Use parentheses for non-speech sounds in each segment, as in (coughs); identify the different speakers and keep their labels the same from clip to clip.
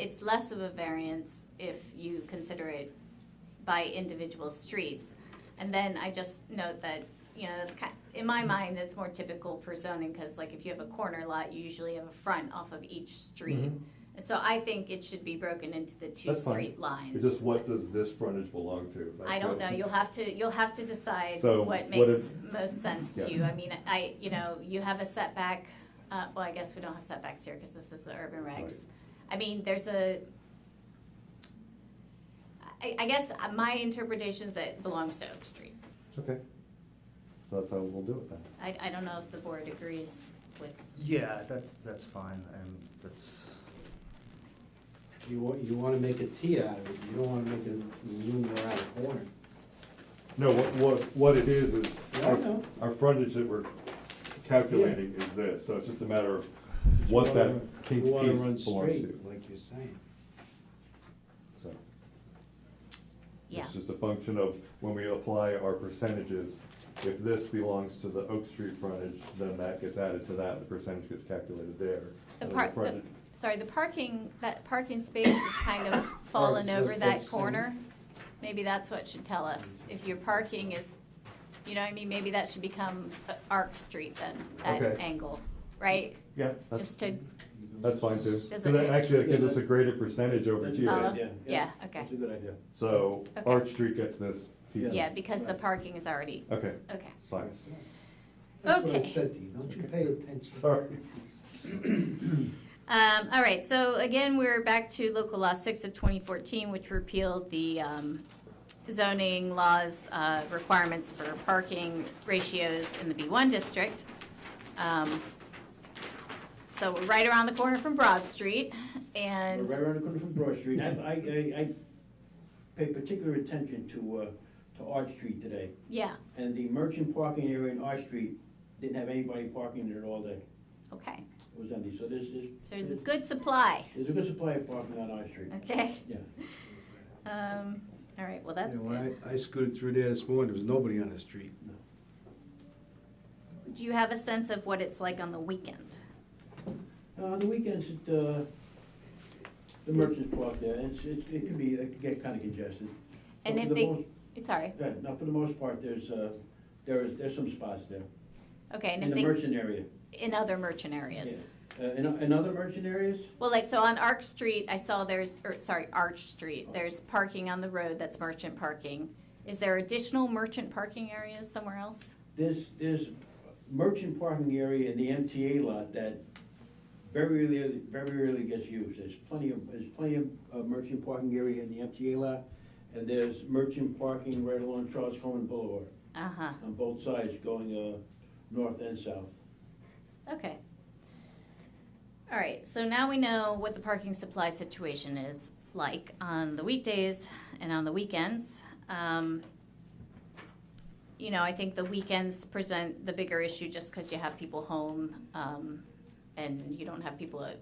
Speaker 1: it's less of a variance if you consider it by individual streets. And then I just note that, you know, that's kind, in my mind, that's more typical for zoning, because like if you have a corner lot, you usually have a front off of each street. And so I think it should be broken into the two
Speaker 2: Mm-hmm. That's fine.
Speaker 1: street lines.
Speaker 2: It's just what does this frontage belong to?
Speaker 1: I
Speaker 2: That's
Speaker 1: don't
Speaker 2: it.
Speaker 1: know, you'll have to, you'll have to decide
Speaker 2: So,
Speaker 1: what
Speaker 2: what
Speaker 1: makes
Speaker 2: if-
Speaker 1: most sense
Speaker 2: Yeah.
Speaker 1: to you. I mean, I, you know, you have a setback, uh, well, I guess we don't have setbacks here because this is the urban regs. I mean, there's a, I, I guess uh, my interpretation is that it belongs to Oak Street.
Speaker 2: Okay. So that's how we'll do it then.
Speaker 1: I, I don't know if the board agrees with,
Speaker 3: Yeah, that, that's fine, and that's,
Speaker 4: You want, you wanna make a T out of it, you don't wanna make a zoom around a corner.
Speaker 2: No, what, what, what it is, is
Speaker 4: Yeah, I
Speaker 2: our,
Speaker 4: know.
Speaker 2: our frontage that we're calculating is this, so it's just a matter of what
Speaker 4: You
Speaker 2: that
Speaker 4: wanna-
Speaker 2: pink
Speaker 4: You wanna
Speaker 2: piece
Speaker 4: run
Speaker 2: belongs to.
Speaker 4: straight, like you're saying.
Speaker 2: So
Speaker 1: yeah.
Speaker 2: It's just a function of when we apply our percentages, if this belongs to the Oak Street frontage, then that gets added to that, the percentage gets calculated there.
Speaker 1: The
Speaker 2: And the
Speaker 1: park,
Speaker 2: frontage-
Speaker 1: sorry, the parking, that parking space is kind
Speaker 2: (coughs)
Speaker 1: of fallen
Speaker 4: Alright, so
Speaker 1: over
Speaker 4: it's
Speaker 1: that
Speaker 4: what's-
Speaker 1: corner. Maybe that's what should tell us, if your parking is, you know what I mean, maybe that should become uh, Arc Street then, that
Speaker 2: Okay.
Speaker 1: angle, right?
Speaker 2: Yeah, that's,
Speaker 1: Just to,
Speaker 2: that's fine too.
Speaker 1: Does
Speaker 2: 'Cause
Speaker 1: it-
Speaker 2: that- Actually, it gives us a greater percentage over
Speaker 5: That's
Speaker 2: here.
Speaker 1: follow?
Speaker 5: Yeah,
Speaker 1: yeah,
Speaker 5: yeah.
Speaker 1: okay.
Speaker 5: That's a good idea.
Speaker 2: So
Speaker 1: Okay.
Speaker 2: Arch Street gets this piece. of-
Speaker 1: Yeah, because the parking is already,
Speaker 2: Okay,
Speaker 1: okay.
Speaker 2: it's fine.
Speaker 4: That's what I
Speaker 1: Okay.
Speaker 4: said to you, don't you pay
Speaker 2: (laughs)
Speaker 4: attention.
Speaker 2: Sorry.
Speaker 1: Um, all right, so again, we're back to local law six of twenty fourteen, which repealed the, um, zoning laws, uh, requirements for parking ratios in the B one district. Um, So we're right around the corner from Broad Street
Speaker 5: We're
Speaker 1: and,
Speaker 5: right around the corner from Broad Street. I, I, I, I paid particular attention to, uh, to Arch Street today.
Speaker 1: yeah,
Speaker 5: And the merchant parking area in Arch Street didn't have anybody parking there all day.
Speaker 1: okay.
Speaker 5: It was empty, so this is.
Speaker 1: So there's a good supply,
Speaker 5: There's a good supply of parking on Arch Street.
Speaker 1: okay?
Speaker 5: Yeah.
Speaker 1: Um, all right, well,
Speaker 4: You
Speaker 1: that's
Speaker 4: know,
Speaker 1: good.
Speaker 4: when I, I scooted through there this morning, there was nobody on the street.
Speaker 1: Do you have a sense of what it's like on the weekend?
Speaker 5: Uh, On the weekends, it, uh, the merchants park there, and it's, it, it can be, it can get kinda congested.
Speaker 1: And
Speaker 5: But
Speaker 1: if
Speaker 5: for the
Speaker 1: they,
Speaker 5: most-
Speaker 1: sorry,
Speaker 5: Yeah, now for the most part, there's, uh, there is, there's some spots there,
Speaker 1: okay, and
Speaker 5: in
Speaker 1: if
Speaker 5: the
Speaker 1: they,
Speaker 5: merchant area.
Speaker 1: in other merchant areas?
Speaker 5: Yeah. Uh, in, in other merchant areas,
Speaker 1: Well, like, so on Arc Street, I saw there's, or, sorry, Arch Street, there's parking on the road that's merchant parking. Is there additional merchant parking areas somewhere else?
Speaker 5: there's, there's merchant parking area in the MTA lot that very rarely, very rarely gets used. There's plenty of, there's plenty of uh, merchant parking area in the MTA lot, and there's merchant parking right along Charles Cohen Boulevard,
Speaker 1: Uh-huh,
Speaker 5: on both sides, going, uh, north and south.
Speaker 1: okay. All right, so now we know what the parking supply situation is like on the weekdays and on the weekends. Um, You know, I think the weekends present the bigger issue just because you have people home, um, and you don't have people at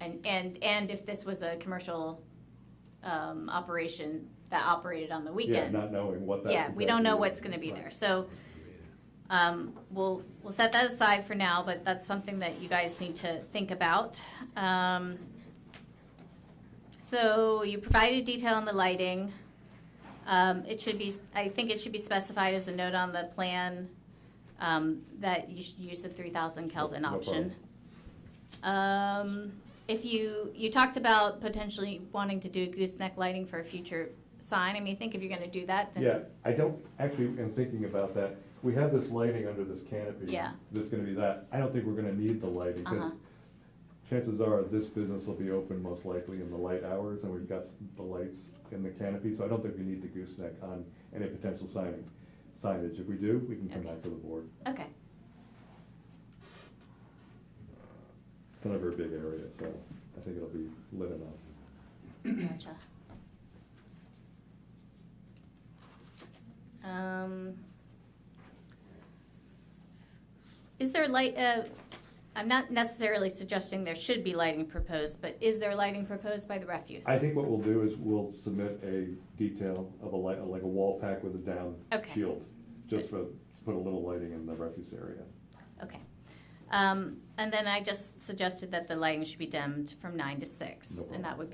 Speaker 1: And, and, and if this was a commercial, um, operation that operated on the
Speaker 2: Yeah,
Speaker 1: weekend.
Speaker 2: not knowing what that.
Speaker 1: Yeah, we don't know
Speaker 2: exactly is.
Speaker 1: what's gonna be there, so, um, we'll, we'll set that aside for now, but that's something that you guys need to think about. Um, so you provided detail on the lighting. Um, it should be, I think it should be specified as a note on the plan, um, that you should use the three thousand Kelvin
Speaker 2: No problem.
Speaker 1: option. Um, if you, you talked about potentially wanting to do gooseneck lighting for a future sign, I mean, I think if you're gonna do that, then.
Speaker 2: Yeah, I don't, actually, am thinking about that, we have this lighting under this canopy.
Speaker 1: Yeah.
Speaker 2: That's gonna be that, I don't think we're gonna need the lighting, because
Speaker 1: Uh-huh.
Speaker 2: chances are, this business will be open most likely in the light hours, and we've got s- the lights in the canopy, so I don't think we need the gooseneck on any potential signing, signage, if we do, we can come
Speaker 1: Okay.
Speaker 2: back to the board,
Speaker 1: Okay,
Speaker 2: it's not a very big area, so I think it'll be lit enough.
Speaker 1: gotcha. Um, is there light, uh, I'm not necessarily suggesting there should be lighting proposed, but is there lighting proposed by the refuse?
Speaker 2: I think what we'll do is we'll submit a detail of a light, like a wall pack with a down
Speaker 1: Okay.
Speaker 2: shield, just for, put a little lighting in the refuse area.
Speaker 1: Okay. Um, and then I just suggested that the lighting should be dimmed from nine to six,
Speaker 2: No
Speaker 1: and that
Speaker 2: problem.
Speaker 1: would be